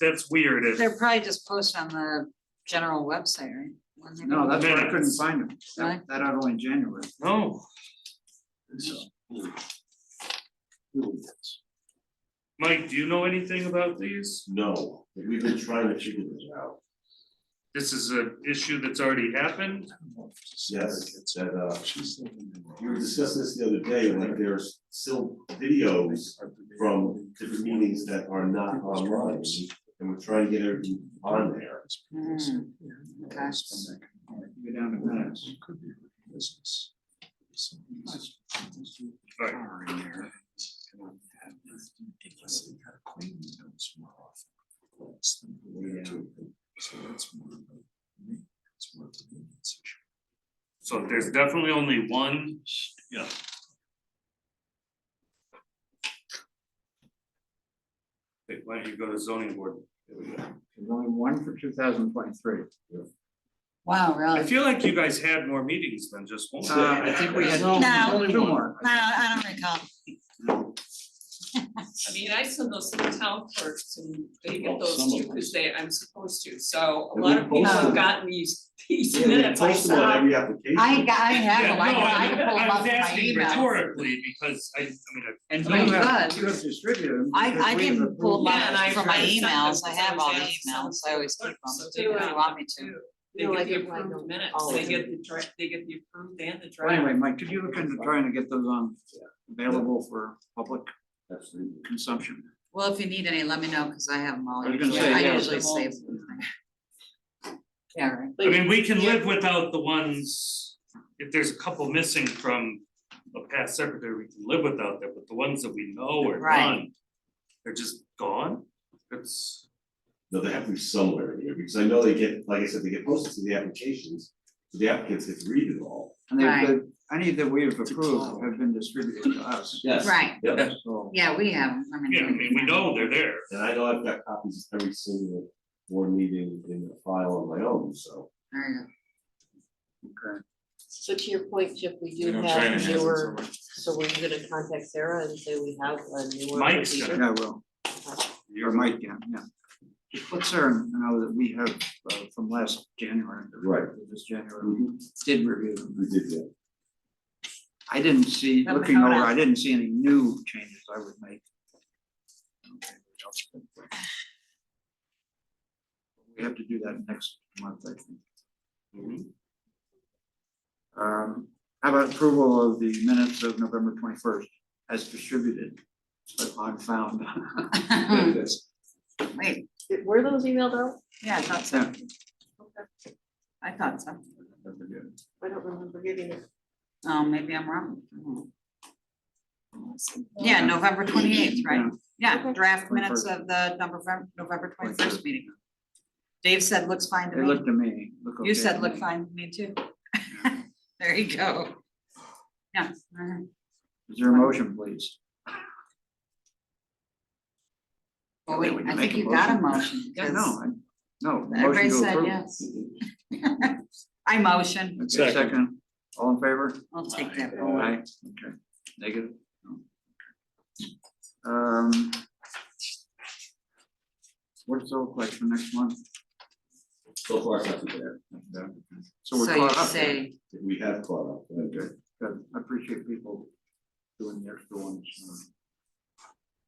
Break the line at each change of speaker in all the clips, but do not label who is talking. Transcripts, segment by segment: that's weird if.
They're probably just posted on the general website, right? Wasn't it?
No, that's why I couldn't
Minutes.
find them.
Right.
That, that out only January.
No,
So,
Mike, do you know anything about these?
No, we've been trying to figure this out.
This is an issue that's already happened.
Yes, it's that, uh, we were discussing this the other day, like there's still videos from different meetings that are not online. And we're trying to get everything on there.
Hmm, okay.
Go down to minutes.
Right. So there's definitely only one. Yeah. Wait, why don't you go to zoning board?
There's only one for two thousand twenty-three.
Wow,
I
really?
feel like you guys had more meetings than just one.
Uh, I think we had
No.
there's only two more.
No, I don't recall.
I mean, I send those to the town clerks and they
Oh,
get those too, cause they, I'm supposed to, so a
And
lot
we
of people
post
have
them.
gotten these, these
Yeah, they
minutes, I
post them on
saw.
every application.
I got, I
Yeah,
have,
no,
them. I can, I
I
can pull them
I
up
was
in my
asking
email.
rhetorically because I, I mean, I
And you
Oh,
have,
good.
you have distributed them.
I-
because
I
we have
can pull
approved
Yeah, and I-
them from my
I sent them
emails, I
to
have all the
somebody else.
emails, I always keep them,
So
if you
they-
want me to.
They
No,
get
I
the
didn't like
approved
them.
minutes,
All
they
of
get the dra- they get the approved and the
it. Anyway,
draft.
Mike, could you look into trying to get those on, available for public
Absolutely.
consumption?
Well, if you need any, let me know, cause I have them all.
I was gonna
usually.
say,
I
yeah.
usually save them. Yeah, right.
I mean, we can live without the ones, if there's a couple missing from a past secretary, we can live without that, but the ones that we know are
Right.
gone. They're just gone, it's,
No, they have to be somewhere in here, because I know they get, like I said, they get posted to the applications, so the applicants get to read it all.
And they,
Right.
the- any that we have approved have been distributed to us.
Yes.
Right,
Yep,
So,
yeah, we have, 'em. I mean.
yeah, I mean, we know they're there.
and I know I've got copies of every single board meeting in a file on my own, so.
There you go.
okay.
So to your point, Chip, we
You
do
know, China
have
has it
newer,
somewhere.
so were you gonna contact Sarah and say we have a newer?
Mike's
procedure?
Yeah, I will. Or Mike, yeah, yeah. Just let Sarah know that we have uh, from last January.
Right.
This January, we did review them.
We did that.
I didn't see,
Let me
looking
know
over,
now.
I didn't see any new changes I would make. We have to do that next month, I think.
Mhm.
Um, how about approval of the minutes of November twenty-first as distributed, but unfound?
Hmm. Wait,
Did- Were those emailed out?
yeah, I thought so, I thought so.
I don't remember getting it.
Oh, maybe I'm wrong. Yeah, November twenty eighth, right? Yeah,
Okay.
draft minutes of the November, November twenty first meeting. Dave said looks fine to
It
me.
looked to me, look okay.
You said
to
look
me.
fine to me too. There you go. Yeah. all right.
Is there a motion, please?
Well, wait,
When
I
make
think you got a motion.
Yeah, no, I, no. motion
'cause Everybody
to
said
approve.
yes. I motion,
Okay, second, all in favor?
I'll take that.
Aye, okay, negative? No. Um. What's the look like for next month?
So far, it's not too bad.
So we're
So you
caught up. then.
say,
We have caught up. but-
Good, good, I appreciate people doing the extra ones.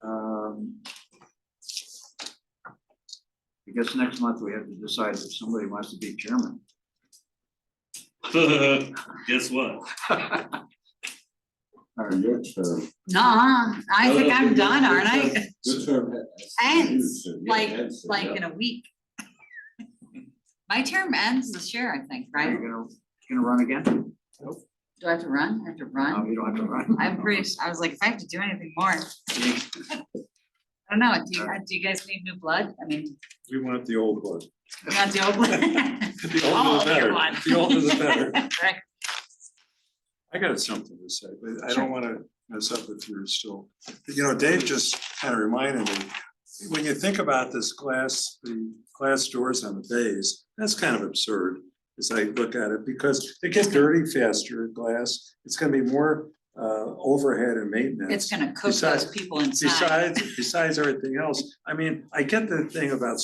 Um. I guess next month we have to decide if somebody wants to be chairman.
Guess what?
Or your term.
nah, I
Oh,
No,
think
no,
I'm
your-
done,
your
aren't I?
term- Your term. has-
Ends,
Yeah,
like,
ends,
like
yeah.
in a week. My term ends this year, I think,
Are you
right?
gonna, gonna run again?
Do I have to run? I have to
No,
Um,
run?
you don't have to run.
I'm pretty, s- I was like, if I have to do anything more. I don't know, do you, do you guys need new blood? I mean,
We want the old one.
you got the old one?
The
All
older the
of
better.
your one.
The older the better.
Right.
I got something to say, but I don't wanna mess up if you're still, you know, Dave just kind of reminded me. When you think about this glass, the glass doors on the bays, that's kind of absurd as I look at it, because they get dirty faster, glass. It's gonna be more uh overhead and maintenance.
It's gonna cook those
Besides-
people inside.
Besides, besides everything else, I mean, I get the thing about